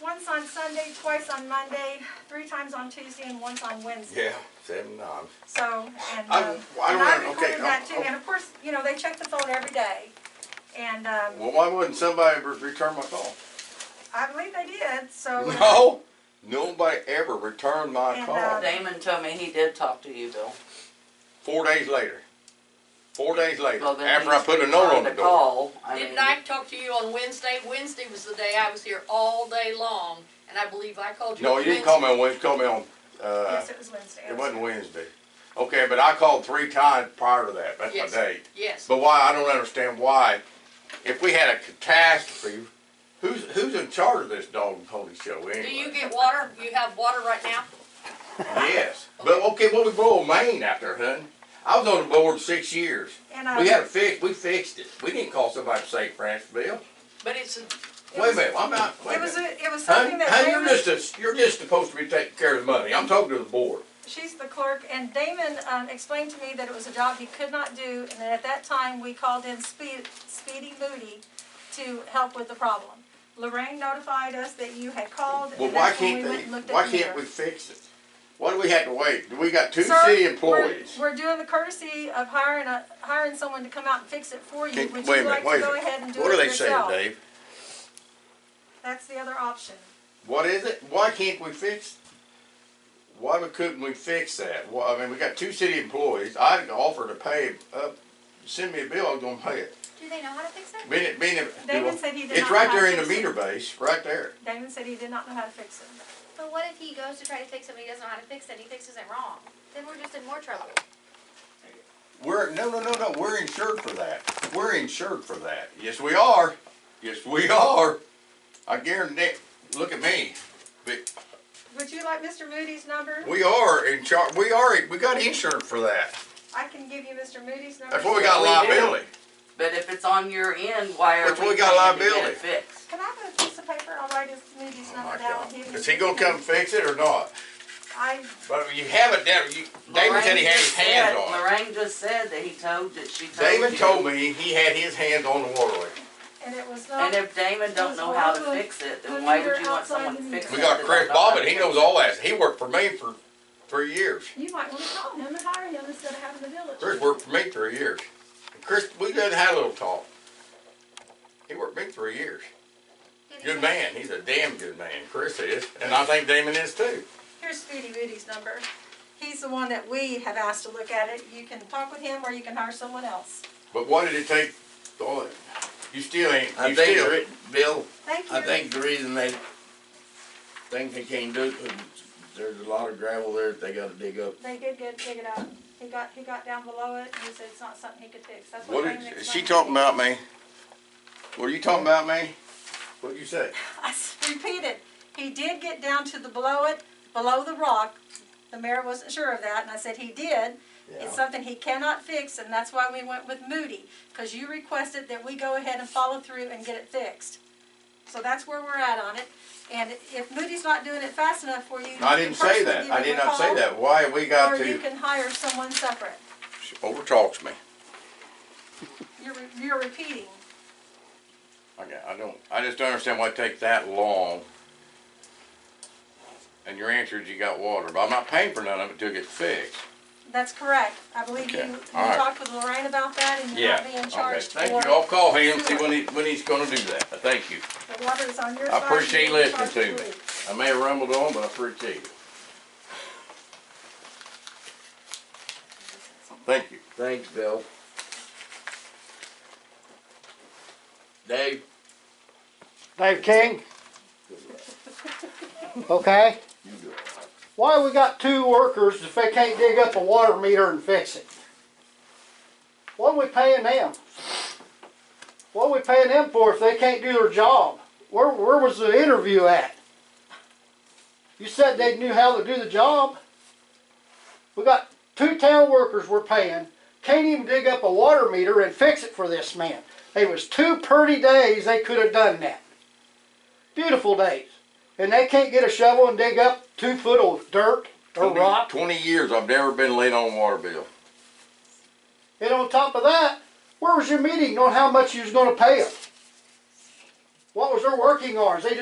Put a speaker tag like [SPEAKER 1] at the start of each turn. [SPEAKER 1] once on Sunday, twice on Monday, three times on Tuesday, and once on Wednesday.
[SPEAKER 2] Yeah, seven times.
[SPEAKER 1] So, and,
[SPEAKER 2] I-
[SPEAKER 1] um,
[SPEAKER 2] I
[SPEAKER 1] and
[SPEAKER 2] don't-
[SPEAKER 1] I
[SPEAKER 2] okay,
[SPEAKER 1] recorded
[SPEAKER 2] no,
[SPEAKER 1] that too,
[SPEAKER 2] okay.
[SPEAKER 1] and of course, you know, they check the phone every day. And, um,
[SPEAKER 2] Well, why wouldn't somebody re- return my call?
[SPEAKER 1] I believe they did, so.
[SPEAKER 2] No, nobody ever returned my
[SPEAKER 1] And,
[SPEAKER 2] call.
[SPEAKER 1] uh,
[SPEAKER 3] Damon told me he did talk to you, Bill.
[SPEAKER 2] Four days later. Four days later,
[SPEAKER 3] Well, then
[SPEAKER 2] after I
[SPEAKER 3] he's
[SPEAKER 2] put a note on
[SPEAKER 3] returned
[SPEAKER 2] the door.
[SPEAKER 3] call. I mean,
[SPEAKER 4] Didn't I talk to you on Wednesday? Wednesday was the day I was here all day long, and I believe I called you.
[SPEAKER 2] No,
[SPEAKER 4] on
[SPEAKER 2] you didn't call me
[SPEAKER 4] Wednesday.
[SPEAKER 2] on Wednesday, you called me on, uh,
[SPEAKER 1] Yes, it was Wednesday.
[SPEAKER 2] it wasn't Wednesday. Okay, but I called three times prior to that, that's my
[SPEAKER 4] Yes.
[SPEAKER 2] date.
[SPEAKER 4] Yes,
[SPEAKER 2] But why, I don't understand why, if we had a catastrophe, who's, who's in charge of this dog and pony show anyway?
[SPEAKER 4] do you get water? You have water right now?
[SPEAKER 2] Yes, but okay, well, we blow a main out there, hun. I was on the board six years.
[SPEAKER 1] And, um,
[SPEAKER 2] We had it fixed, we fixed it. We didn't call somebody to save Franceville.
[SPEAKER 4] But it's,
[SPEAKER 2] Wait a minute, I'm not, wait a
[SPEAKER 1] It was,
[SPEAKER 2] minute.
[SPEAKER 1] a- it was
[SPEAKER 2] Hun,
[SPEAKER 1] something that
[SPEAKER 2] hun,
[SPEAKER 1] Damon.
[SPEAKER 2] you're just, a- you're just supposed to be taking care of the money. I'm talking to the board.
[SPEAKER 1] She's the clerk, and Damon um, explained to me that it was a job he could not do, and that at that time, we called in Speed- Speedy Moody to help with the problem. Lorraine notified us that you had called,
[SPEAKER 2] Well,
[SPEAKER 1] and
[SPEAKER 2] why
[SPEAKER 1] that's when
[SPEAKER 2] can't
[SPEAKER 1] we went and looked
[SPEAKER 2] they,
[SPEAKER 1] at
[SPEAKER 2] why
[SPEAKER 1] the meter.
[SPEAKER 2] can't we fix it? Why do we have to wait? We got two
[SPEAKER 1] Sir,
[SPEAKER 2] city
[SPEAKER 1] we're-
[SPEAKER 2] employees.
[SPEAKER 1] We're doing the courtesy of hiring a, hiring someone to come out and fix it for you,
[SPEAKER 2] Can-
[SPEAKER 1] would
[SPEAKER 2] wait a
[SPEAKER 1] you like
[SPEAKER 2] minute,
[SPEAKER 1] to
[SPEAKER 2] wait a
[SPEAKER 1] go
[SPEAKER 2] minute.
[SPEAKER 1] ahead and do
[SPEAKER 2] What are
[SPEAKER 1] it
[SPEAKER 2] they saying,
[SPEAKER 1] yourself?
[SPEAKER 2] Dave?
[SPEAKER 1] That's the other option.
[SPEAKER 2] What is it? Why can't we fix? Why we- couldn't we fix that? Well, I mean, we got two city employees. I offered to pay up. Send me a bill. I'm gonna pay it.
[SPEAKER 5] Do they know how to fix it?
[SPEAKER 2] Being it, being it,
[SPEAKER 1] David said he did
[SPEAKER 2] it's
[SPEAKER 1] not
[SPEAKER 2] right
[SPEAKER 1] know
[SPEAKER 2] there
[SPEAKER 1] how to
[SPEAKER 2] in the
[SPEAKER 1] fix it.
[SPEAKER 2] meter base, right there.
[SPEAKER 1] Damon said he did not know how to fix it.
[SPEAKER 5] But what if he goes to try to fix it, but he doesn't know how to fix it, and he fixes it wrong? Then we're just in more trouble.
[SPEAKER 2] We're no, no, no, no. We're insured for that. We're insured for that. Yes, we are. Yes, we are. I guarantee. Look at me. But
[SPEAKER 1] Would you like Mr. Moody's number?
[SPEAKER 2] we are in charge. We are. We got insurance for that.
[SPEAKER 1] I can give you Mr. Moody's number.
[SPEAKER 2] That's what we got
[SPEAKER 3] We do.
[SPEAKER 2] liability.
[SPEAKER 3] But if it's on your end, why are
[SPEAKER 2] But we
[SPEAKER 3] we
[SPEAKER 2] got
[SPEAKER 3] paying to get
[SPEAKER 2] liability.
[SPEAKER 3] it fixed?
[SPEAKER 1] Can I have a piece of paper? I'll write his Moody's
[SPEAKER 2] Oh
[SPEAKER 1] number
[SPEAKER 2] my
[SPEAKER 1] down.
[SPEAKER 2] God.
[SPEAKER 1] and give you-
[SPEAKER 2] Is he gonna come fix it or not?
[SPEAKER 1] I,
[SPEAKER 2] But you have it down, you, David said he
[SPEAKER 3] Lorraine
[SPEAKER 2] had his
[SPEAKER 3] just
[SPEAKER 2] hands
[SPEAKER 3] said-
[SPEAKER 2] on it.
[SPEAKER 3] Lorraine just said that he told, that she told you.
[SPEAKER 2] David told me he had his hands on the water leak.
[SPEAKER 1] and it was
[SPEAKER 3] And
[SPEAKER 1] not,
[SPEAKER 3] if Damon don't know how to fix it, then why would you want someone to fix it?
[SPEAKER 2] We got
[SPEAKER 3] that
[SPEAKER 2] Craig
[SPEAKER 3] don't know how
[SPEAKER 2] Bobbin,
[SPEAKER 3] to
[SPEAKER 2] he
[SPEAKER 3] fix
[SPEAKER 2] knows
[SPEAKER 3] it?
[SPEAKER 2] all that, he worked for me for three years.
[SPEAKER 1] you might wanna call him and hire him instead of having the village.
[SPEAKER 2] Chris worked for me three years. And Chris, we done had a little talk. He worked for me three years.
[SPEAKER 5] Did he
[SPEAKER 2] Good
[SPEAKER 5] say-
[SPEAKER 2] man, he's a damn good man, Chris is, and I think Damon is too.
[SPEAKER 1] Here's Speedy Moody's number. He's the one that we have asked to look at it. You can talk with him or you can hire someone else.
[SPEAKER 2] But why did it take, all that? you still ain't,
[SPEAKER 6] I
[SPEAKER 2] you
[SPEAKER 6] think, the
[SPEAKER 2] still,
[SPEAKER 6] re- Bill,
[SPEAKER 1] Thank you.
[SPEAKER 6] I think the reason they think they can't do it, 'cause there's a lot of gravel there that they gotta dig up.
[SPEAKER 1] They did get, dig it up. He got, he got down below it and he said it's not something he could fix. That's what
[SPEAKER 2] what
[SPEAKER 1] Damon
[SPEAKER 2] is,
[SPEAKER 1] explained.
[SPEAKER 2] is she talking about me? Were you talking about me? What'd you say?
[SPEAKER 1] I s- repeated, he did get down to the below it, below the rock. The mayor wasn't sure of that, and I said he did. It's something he cannot fix, and that's why we went with Moody, because you requested that we go ahead and follow through and get it fixed. So that's where we're at on it, and if Moody's not doing it fast enough for you.
[SPEAKER 2] I
[SPEAKER 1] you can
[SPEAKER 2] didn't
[SPEAKER 1] personally
[SPEAKER 2] say that.
[SPEAKER 1] give
[SPEAKER 2] I
[SPEAKER 1] him
[SPEAKER 2] did
[SPEAKER 1] a
[SPEAKER 2] not say
[SPEAKER 1] call,
[SPEAKER 2] that. Why we got
[SPEAKER 1] Or you
[SPEAKER 2] to,
[SPEAKER 1] can hire someone separate.
[SPEAKER 2] she overtalks me.
[SPEAKER 1] You're, re- you're repeating.
[SPEAKER 2] Okay, I don't, I just don't understand why it takes that long. And your answer is you got water, but I'm not paying for none of it till it gets fixed.
[SPEAKER 1] That's correct. I believe you,
[SPEAKER 2] Okay,
[SPEAKER 1] you
[SPEAKER 2] all right.
[SPEAKER 1] talked with Lorraine about that, and you're
[SPEAKER 2] Yeah.
[SPEAKER 1] not being
[SPEAKER 2] Okay,
[SPEAKER 1] charged for.
[SPEAKER 2] thank you. I'll call him, see when he, when he's gonna do that. But Thank you.
[SPEAKER 1] The water is on your
[SPEAKER 2] I
[SPEAKER 1] side.
[SPEAKER 2] appreciate you
[SPEAKER 1] you're in
[SPEAKER 2] listening to
[SPEAKER 1] charge
[SPEAKER 2] me.
[SPEAKER 1] of it.
[SPEAKER 2] I may have rumbled on, but I appreciate it. Thank you.
[SPEAKER 6] Thanks, Bill. Dave,
[SPEAKER 7] Dave King? Okay? Why we got two workers if they can't dig up a water meter and fix it? What are we paying them? What are we paying them for if they can't do their job? Where, where was the interview at? You said they knew how to do the job. We got two town workers we're paying, can't even dig up a water meter and fix it for this man. It was two pretty days they could have done that. Beautiful days. And they can't get a shovel and dig up two foot of dirt or
[SPEAKER 2] Twenty-
[SPEAKER 7] Oh, rock.
[SPEAKER 2] Twenty years, I've never been late on a water bill.
[SPEAKER 7] And on top of that, where was your meeting on how much you was gonna pay them? What was their working hours? They